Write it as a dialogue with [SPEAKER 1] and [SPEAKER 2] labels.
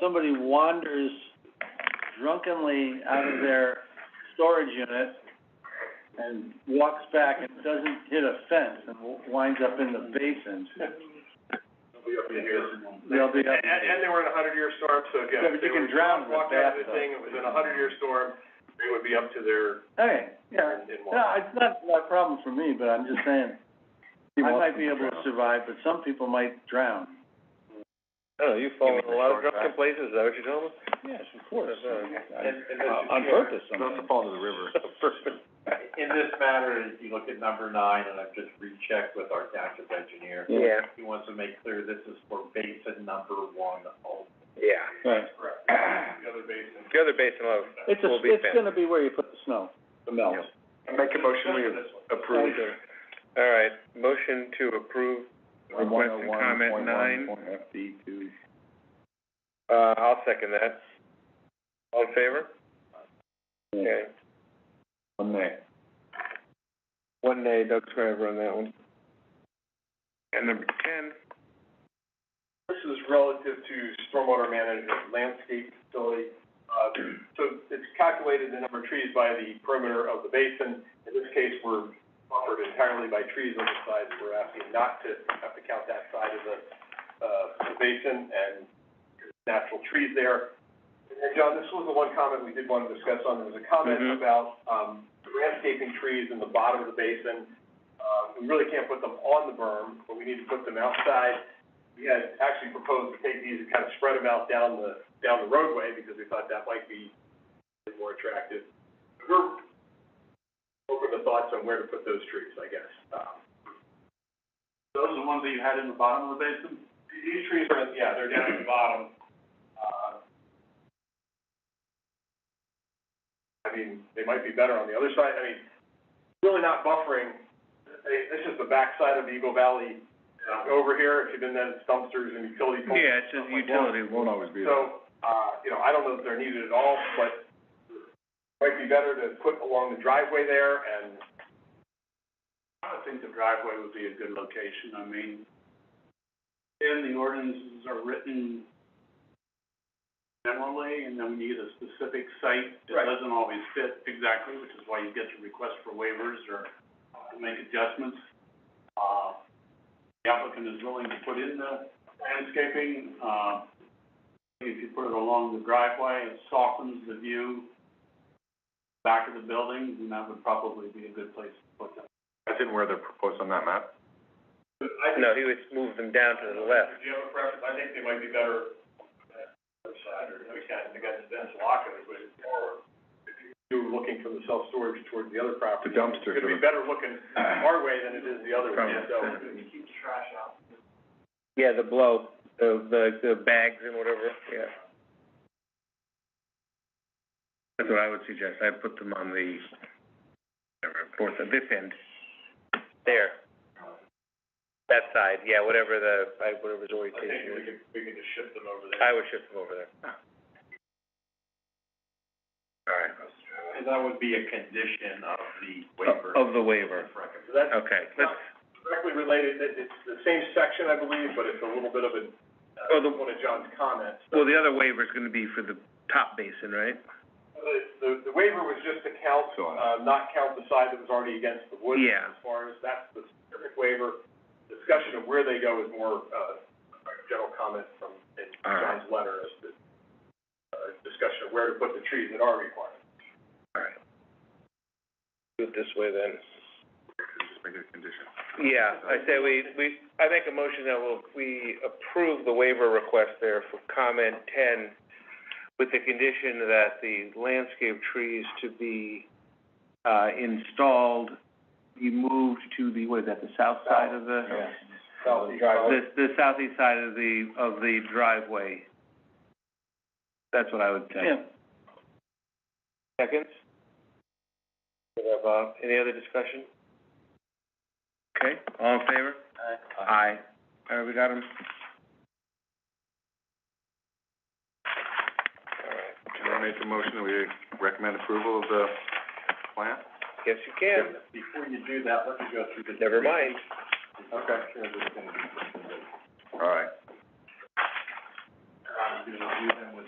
[SPEAKER 1] somebody wanders drunkenly out of their storage unit and walks back and doesn't hit a fence and w- winds up in the basin,
[SPEAKER 2] Be up in here.
[SPEAKER 1] they'll be up.
[SPEAKER 2] And, and they were in a hundred year storm, so again.
[SPEAKER 1] Yeah, but
[SPEAKER 2] if
[SPEAKER 1] you
[SPEAKER 2] they
[SPEAKER 1] can
[SPEAKER 2] were
[SPEAKER 1] drown in the
[SPEAKER 2] Walked out of the
[SPEAKER 1] bathtub.
[SPEAKER 2] thing, it was in a hundred year storm, they would be up to their,
[SPEAKER 1] Hey, yeah,
[SPEAKER 2] in, in
[SPEAKER 1] no,
[SPEAKER 2] water.
[SPEAKER 1] it's not, not a problem for me, but I'm just saying, I might be able to survive, but some people might drown.
[SPEAKER 3] I don't know, Oh, you fall in a lot of drunken places, is that what you're telling us?
[SPEAKER 4] Yes, of course.
[SPEAKER 2] uh, And, and Mr.
[SPEAKER 4] On
[SPEAKER 2] Chair,
[SPEAKER 4] purpose, sometimes.
[SPEAKER 3] fall to the river.
[SPEAKER 2] In this matter, if you look at number nine, and I've just rechecked with our township engineer,
[SPEAKER 3] Yeah,
[SPEAKER 2] he wants to make clear this is for basin number one only.
[SPEAKER 3] yeah.
[SPEAKER 4] Right.
[SPEAKER 2] Correct. The other basin.
[SPEAKER 3] The other basin of,
[SPEAKER 1] It's a,
[SPEAKER 3] Will be
[SPEAKER 1] it's
[SPEAKER 3] fence.
[SPEAKER 1] gonna be where you put the snow, the melt.
[SPEAKER 3] Yeah.
[SPEAKER 2] Make a motion, we
[SPEAKER 1] approve.
[SPEAKER 3] all right, motion to approve,
[SPEAKER 1] oh
[SPEAKER 3] Request
[SPEAKER 4] oh
[SPEAKER 3] and comment nine.
[SPEAKER 4] FD two.
[SPEAKER 3] uh, I'll second that. All in favor? Okay,
[SPEAKER 4] One there.
[SPEAKER 3] one nay, Doug Schreiber on that one. And number ten,
[SPEAKER 2] This is relative to stormwater management landscape facility. Uh, so it's calculated the number of trees by the perimeter of the basin. In this case, we're buffered entirely by trees on the sides. We're asking not to have to count that side of the, uh, the basin and natural trees there. And John, this was the one comment we did want to discuss on. There was a comment
[SPEAKER 3] Mhm.
[SPEAKER 2] about, um, landscaping trees in the bottom of the basin. Uh, we really can't put them on the berm, but we need to put them outside we had actually proposed to take these and kind of spread them out down the, down the roadway, because we thought that might be more attractive. We're open to thoughts on where to put those trees, I guess. Um,
[SPEAKER 1] Those are the ones that you had in the bottom of the basin?
[SPEAKER 2] These trees are, yeah, they're down at the bottom. Uh, I mean, they might be better on the other side, I mean, really not buffering. They- This is the backside of Eagle Valley, uh, over here, if you've been to dumpsters and utility poles.
[SPEAKER 3] yeah, it says
[SPEAKER 2] stuff like that.
[SPEAKER 3] utility,
[SPEAKER 4] Won't always be there.
[SPEAKER 2] So, uh, you know, I don't know if they're needed at all, but might be better to put along the driveway there and.
[SPEAKER 1] I think the driveway would be a good location, I mean, and the ordinances are written generally, and then we need a specific site that
[SPEAKER 2] Right.
[SPEAKER 1] doesn't always fit exactly, which is why you get the request for waivers or to make adjustments. Uh, the applicant is willing to put in the landscaping, uh, if you put it along the driveway, it softens the view back of the building, and that would probably be a good place to put them.
[SPEAKER 2] That's in where they're proposed on that map? I think,
[SPEAKER 3] no, he would move them down to the left.
[SPEAKER 2] do you have a preference? I think they might be better on the other side, or we kind of, they got this dense lock of it, but it's more. You were looking from the self-storage toward the other property.
[SPEAKER 4] The dumpster
[SPEAKER 2] It's gonna be better looking our way than it is the other way, so.
[SPEAKER 3] Probably.
[SPEAKER 2] Keep the trash out.
[SPEAKER 3] Yeah, the blow, the, the, the bags and whatever, yeah. That's what I would suggest, I'd put them on the, whatever, fourth, this end, there. That side, yeah, whatever the, I-
[SPEAKER 2] I think
[SPEAKER 3] whatever's
[SPEAKER 2] we
[SPEAKER 3] orientation is,
[SPEAKER 2] could, we could just shift them over there.
[SPEAKER 3] I would shift them over there. All right.
[SPEAKER 2] And that would be a condition of the
[SPEAKER 3] Of the waiver,
[SPEAKER 2] So that's
[SPEAKER 3] okay, let's,
[SPEAKER 2] directly related, it, it's the same section, I believe, but it's a little bit of a,
[SPEAKER 3] Oh, the-
[SPEAKER 2] uh, one of John's comments.
[SPEAKER 3] well, the other waiver's gonna be for the top basin, right?
[SPEAKER 2] The- The, the waiver was just to count,
[SPEAKER 4] So,
[SPEAKER 2] uh, not count the side that was already against the woods.
[SPEAKER 3] Yeah.
[SPEAKER 2] As far as, that's the specific waiver. Discussion of where they go is more, uh, a general comment from, in
[SPEAKER 3] All right.
[SPEAKER 2] John's letter, as to, uh, discussion of where to put the trees that are required.
[SPEAKER 3] Alright. Do it this way then.
[SPEAKER 4] Just make it a condition.
[SPEAKER 3] Yeah, I say we, we, I make a motion that we'll, we approve the waiver request there for comment ten with the condition that the landscape trees to be, uh, installed, be moved to the, what is that, the south side of the?
[SPEAKER 2] Southeast.
[SPEAKER 3] The, the southeast side of the, of the driveway. That's what I would say.
[SPEAKER 1] Yeah,
[SPEAKER 3] Seconds? Yeah, Bob. Any other discussion? Okay, all in favor? Aye. All right, we got him. All right.
[SPEAKER 4] Can I make a motion that we recommend approval of the plan?
[SPEAKER 3] Yes, you can.
[SPEAKER 2] Before you do that, let me go through the.
[SPEAKER 3] Never mind.
[SPEAKER 2] Okay.
[SPEAKER 4] All right.
[SPEAKER 2] Um, review them with